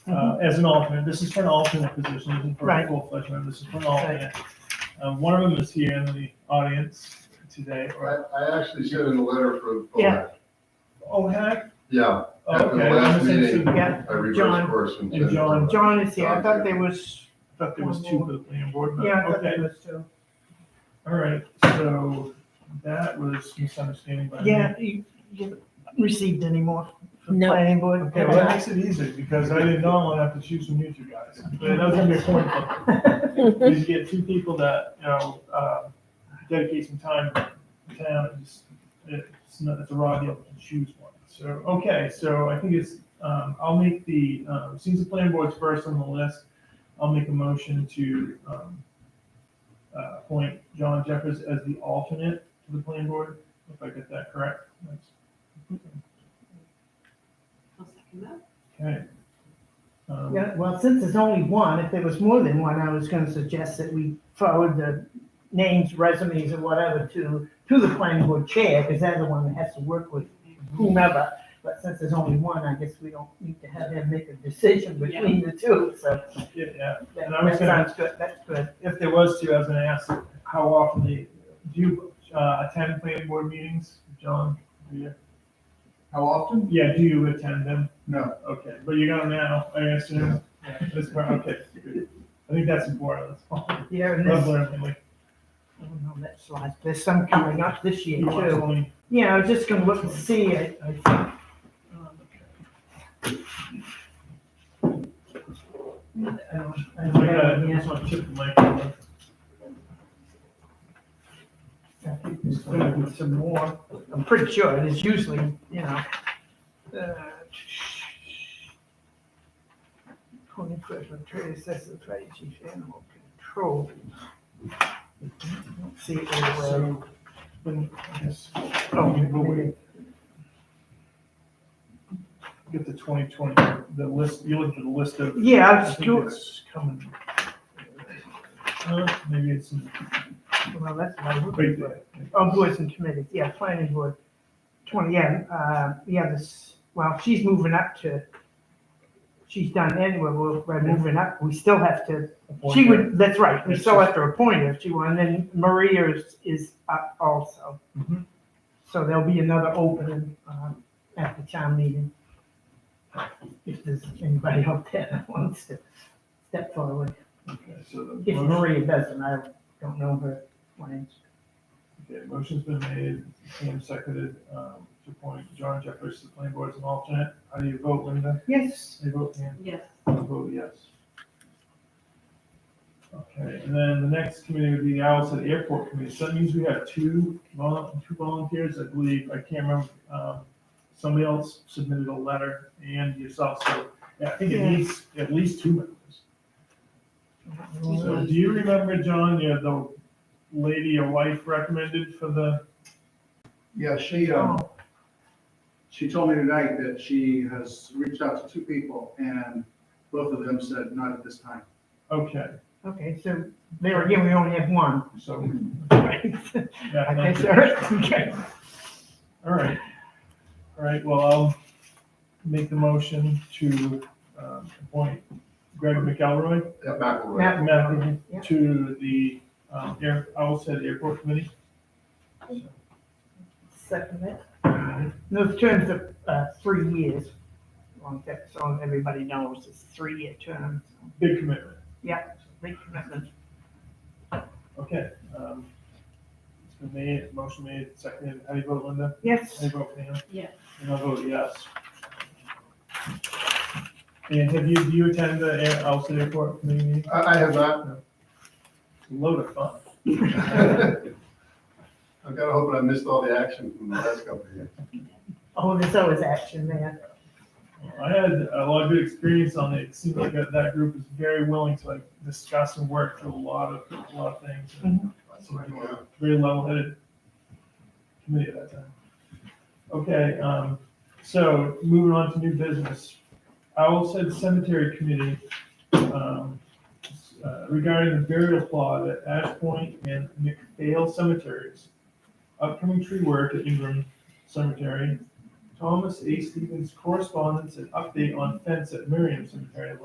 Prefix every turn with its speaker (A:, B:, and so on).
A: uh, as an alternate. This is for an alternate position, this is for a
B: Mm-hmm. Right.
A: full-fledged member, this is for an alternate. Um, one of them is here in the audience today, or,
C: I, I actually sent in a letter for.
B: Yeah.
A: oh, heck,
C: Yeah, at the
A: okay, I
C: last meeting,
A: misunderstood.
B: Yeah.
C: I reversed
B: John.
C: course
A: And
C: and. sent it to
A: John-
C: her.
B: John is here, I thought there was,
A: thought there was two for the planning board, but,
B: yeah, I thought
A: okay,
B: there was two.
A: all right, so that was misunderstanding by me.
B: Yeah, you, you received any more from
D: No.
B: planning board?
A: Okay, well, that makes it easy, because I did not want to have to choose from you two guys, but that was gonna be a point. Because you get two people that, you know, uh, dedicate some time to town, and just, it's not, it's a raw deal to choose one. So, okay, so I think it's, um, I'll make the, um, since the planning board's first on the list, I'll make a motion to, um, uh, appoint John Jeffers as the alternate to the planning board, if I get that correct. That's-
E: I'll second that.
A: Okay. Um,
B: Yeah, well, since there's only one, if there was more than one, I was gonna suggest that we forward the names, resumes, or whatever to, to the planning board chair, because they're the one that has to work with whomever. But since there's only one, I guess we don't need to have him make a decision between the two, so
A: Yeah, yeah.
B: that,
A: And I was
B: that
A: gonna-
B: sounds good, that's good.
A: If there was to, I was gonna ask, how often do you, do you, uh, attend planning board meetings, John? Do you?
F: How often?
A: Yeah, do you attend them?
F: No.
A: Okay, but you got them now, I assume. Yeah, This part, okay. good. I think that's important, that's all.
B: Yeah, and
A: Love
B: this,
A: learning, like,
B: oh no, that's like, there's some coming up this year
A: you want to
B: too.
A: only-
B: Yeah, I was just gonna look and see, I, I think. Oh, um, I don't- I
A: I
B: don't
A: gotta-
B: have it
A: uh, I
B: yet.
A: just want to chip the mic over.
B: I think there's gonna be Some more, I'm pretty sure it is usually, you know. uh, Twenty-first, I'm trying to assess the trade chief animal control. Don't See it right away.
A: So, then, I guess,
B: Oh,
A: we can go with- Get the twenty twenty, the list, you look at the list of
B: Yeah,
A: I
B: it's
A: think
B: two,
A: it's coming. Uh, Maybe it's in-
B: well, that's what I'm
A: right
B: looking for.
A: there.
B: Oh, boards and committees, yeah, planning board, twenty, yeah, uh, yeah, this, well, she's moving up to, she's done anyway, we're, we're moving up, we still have to, she would, that's right, we still have to appoint her if she wants, and then Maria is, is up also.
A: Mhm.
B: So there'll be another opening, um, at the town meeting. If there's anybody out there that wants to step forward,
A: Okay, so the
B: if
A: motion-
B: Maria doesn't, I don't know her plans.
A: okay, motion's been made, Sam seconded, um, to appoint John Jeffers to the planning board as an alternate. How do you vote, Linda?
B: Yes.
A: Do you vote, Ann?
E: Yes.
A: I vote yes. Okay, and then the next committee would be the Owlset Airport Committee. So that means we have two volun, two volunteers, I believe. I can't remember. Um, somebody else submitted a letter and yourself, so yeah, I think it
B: Yeah.
A: needs at least two members. So do you remember, John, you had the lady your wife recommended for the,
F: Yeah, she,
B: Oh.
F: um, she told me tonight that she has reached out to two people and both of them said not at this time.
A: okay,
B: Okay, so there again, we only have one.
A: so,
B: Right.
A: yeah,
B: Okay,
A: thank you.
B: sir. Okay.
A: All right. All right, well, I'll make the motion to um, appoint Greg McElroy
C: Yeah, McElroy.
B: Matt
A: Matt,
B: Yeah.
A: to the um, air, I will say the airport committee.
B: Second it. Those terms are uh, three years. Long that- So everybody knows it's three-year term.
A: Big commitment.
B: Big commitment.
A: Okay. um, It's been made, motion made, seconded. How do you vote, Linda? How
B: Yes.
A: do you vote, Pam?
E: Yes.
A: And I vote yes. And have you, do you attend the air, I'll say airport committee meeting?
C: I, I have not,
A: Load of fun.
C: I'm kind of hoping I missed all the action from the last couple of years.
B: Oh, there's always action there.
A: I had a lot of good experience on it. It seemed like that, that group is very willing to like discuss and work through a lot of a lot of things.
B: Mhm.
A: So they were a very level-headed committee at that time. Okay, um, so moving on to new business. Owl said Cemetery Committee um, uh, regarding the burial plot at Ash Point and McPhail Cemeteries. Upcoming tree work at Ingram Cemetery, Thomas A. Stevens correspondence and update on fence at Miriam Cemetery